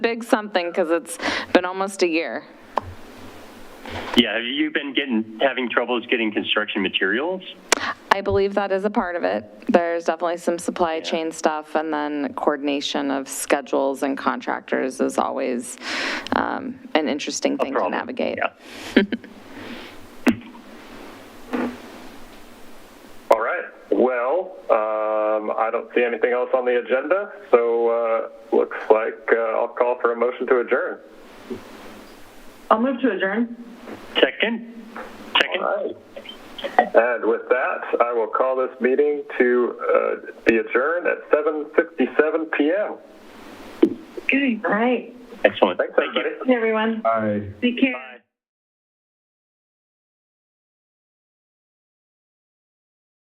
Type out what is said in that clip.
big something because it's been almost a year. Yeah, have you been getting, having troubles getting construction materials? I believe that is a part of it. There's definitely some supply chain stuff, and then coordination of schedules and contractors is always um, an interesting thing to Problem, navigate. Yeah. All right. Well, um, I don't see anything else on the agenda, so uh, looks like uh, I'll call for a motion to adjourn. I'll move to adjourn. Second? Second? All right. And with that, I will call this meeting to uh, be adjourned at 7:57 p.m. Okay. All right. Excellent. Thanks, Thank you. everybody. Everyone, Aye. take care.